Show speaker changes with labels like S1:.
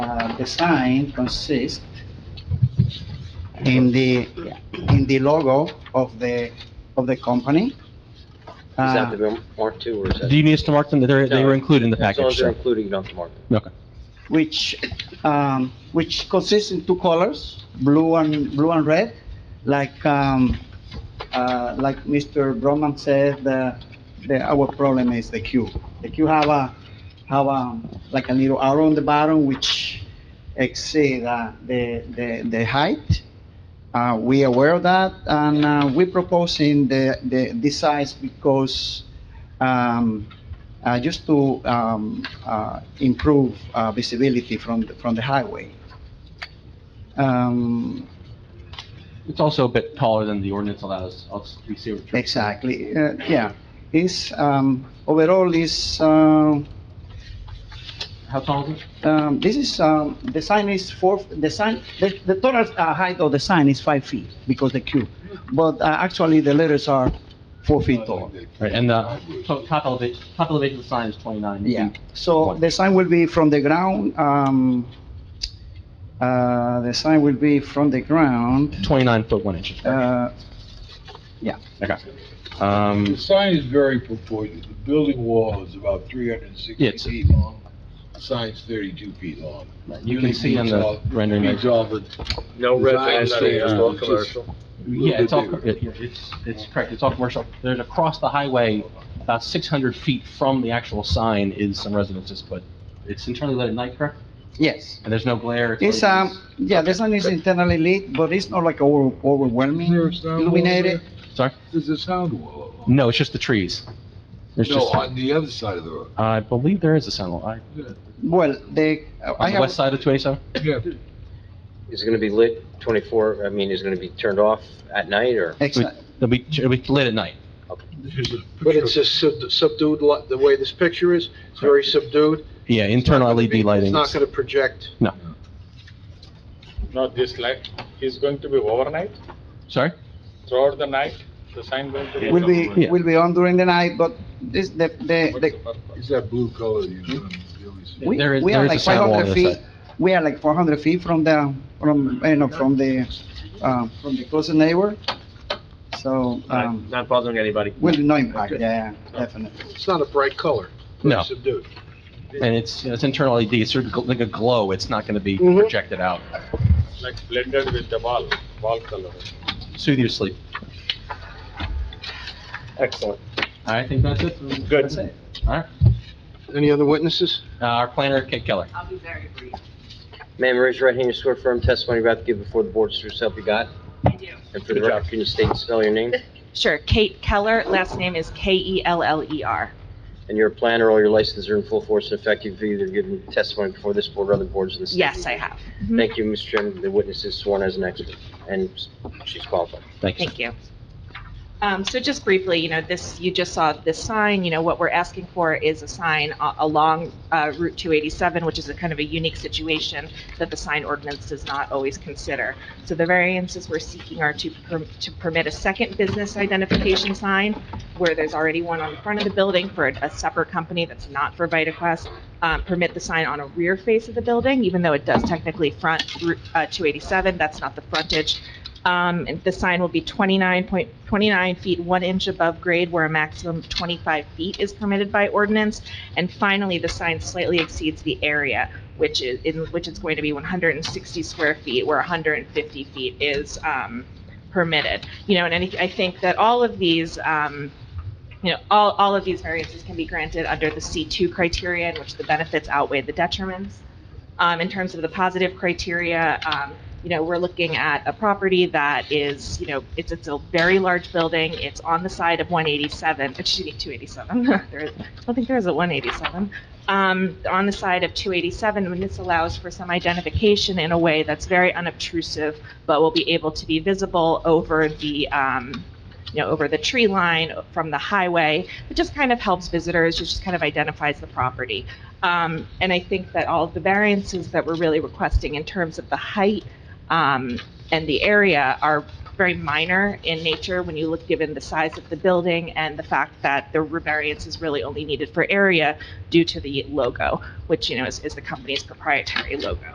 S1: of Uh, the sign consists in the, in the logo of the, of the company.
S2: Does that
S1: Uh,
S2: have to be marked too, or is that?
S3: Do you need us to mark them? They're, Ah. they were
S2: No.
S3: included in the
S2: As long
S3: package,
S2: as they're
S3: sir.
S2: included, you don't have to mark them.
S1: which, um, which consists in two colors, blue and, blue and red, like, um, uh, like Mr. Broman said, the, the, our problem is the queue. The queue have a, have a, like a little arrow on the bottom which exceed, uh, the, the, the height. Uh, we aware of that, and, uh, we proposing the, the, this size because, um, uh, just to um, uh, improve uh, visibility from, the- from the highway. Um,
S3: It's also a bit taller than the ordinance allows. I'll s- we see what you're-
S1: Exactly, uh, yeah. It's, um, overall is, um,
S3: How tall is it?
S1: um, this is, um, the sign is four, the sign, the the total uh, height of the sign is five feet because the cube. But uh, actually, the letters are four feet tall.
S3: Right, and uh, the to- top elevation, top elevation of the sign is 29 feet.
S1: Yeah, so the sign will be from the ground, um, uh, the sign will be from the ground,
S3: 29 foot 1 inch.
S1: uh,
S3: Okay. Um,
S4: The sign is very proportionate. The building wall is about 360
S3: Yes.
S4: feet long. The sign's 32 feet long.
S3: You can see on the rendering.
S4: It's all the
S2: No
S4: red Design flags, standards.
S2: It's
S4: it's
S2: all
S4: all
S2: commercial.
S4: commercial.
S3: Yeah, it's all, co- it- it's, it's correct, it's all commercial. There's across the highway, about 600 feet from the actual sign is some residences, but it's internally lit at night, correct?
S1: yes.
S3: And there's no glare?
S1: It's, um, yeah, the sun is internally lit, but it's not like over- overwhelming
S4: There's no-
S1: illuminated.
S3: Sorry?
S4: There's a sound wall.
S3: No, it's just the trees. Mm, There's
S4: No,
S3: just,
S4: on the other side of the road.
S3: I believe there is a sign law. I-
S1: Well, the, I
S3: On the west
S1: have,
S3: side of 27?
S4: Yeah.
S2: Is it gonna be lit twenty-four, I mean, is it gonna be turned off at night, or?
S1: exa-
S3: It'll be, it'll be lit at night.
S5: But it's a sub- subdued, li- the way this picture is, it's very subdued.
S3: Yeah, internal LED
S5: It's
S3: lighting.
S5: not going to project.
S6: No, this light is going to be overnight,
S3: Sorry?
S6: throughout the night, the sign going to be.
S1: will be,
S3: Yeah.
S1: will be on during the night, but this, the, the, the
S4: It's that blue color you you always see.
S1: we,
S3: There is-
S1: we
S3: there
S1: are
S3: is a
S1: like
S3: sign
S1: five
S3: wall on
S1: hundred
S3: the
S1: feet.
S3: side.
S1: We are like four hundred feet from the, from, you know, from the, uh, from the closest neighbor. So, um,
S2: Not bothering anybody.
S1: will be no impact, yeah, yeah, definitely.
S5: It's not a bright color. Very
S3: No,
S5: Subdued.
S3: and it's, it's internal LED, it's sort of gl- like a glow, it's not gonna be
S5: Mhm.
S3: projected out.
S6: Like blended with the wall, wall color.
S3: Soothe your sleep.
S2: Excellent.
S3: I think that's it.
S6: Good.
S3: That's it. All right.
S5: Any other witnesses?
S3: Uh, Our planner, Kate Keller.
S7: I'll be very brief.
S2: Ma'am, raise your right hand, you swear firm testimony you're about to give before the board, so help you God.
S7: I do.
S2: And for the record, can you state and spell your name?
S7: Sure, Kate Keller, last name is E K-E-L-L-E-R.
S2: And you're a planner, all your licenses are in full force and effect, you've either given testimony before this board or other boards in the state.
S7: Yes, I have.
S2: Thank you, Mr. Chairman, the witness is sworn as an expert, and she's qualified.
S3: Thank you. sir.
S7: Thank you. Um, so just briefly, you know, this, you just saw this sign, you know, what we're asking for is a sign a- along, uh, Route 287, which is a kind of a unique situation that the sign ordinance does not always consider. So the variances we're seeking are to, per- to permit a second business identification sign where there's already one on the front of the building for a, a separate company that's not for VitaQuest. Um, permit the sign on a rear face of the building, even though it does technically front Route, uh, 287, that's not the frontage. Um, and the sign will be 29 point, 29 feet, 1 inch above grade, where a maximum of 25 feet is permitted by ordinance. And finally, the sign slightly exceeds the area, which is, in, which is going to be 160 square feet, where 150 feet is, um, permitted. You know, and any, I think that all of these, um, you know, all, all of these variances can be granted under the C2 criteria, in which the benefits outweigh the detriments. Um, in terms of the positive criteria, um, you know, we're looking at a property that is, you know, it's, it's a very large building. It's on the side of 187, excuse me, 287. There is- I don't think there is a 187. Um, on the side of 287, and this allows for some identification in a way that's very unobtrusive, but will be able to be visible over the, um, you know, over the tree line from the highway. It just kind of helps visitors, it just kind of identifies the property. Um, and I think that all of the variances that we're really requesting in terms of the height, um, and the area are very minor in nature when you look given the size of the building and the fact that the variance is really only needed for area due to the logo, which, you know, is, is the company's proprietary logo.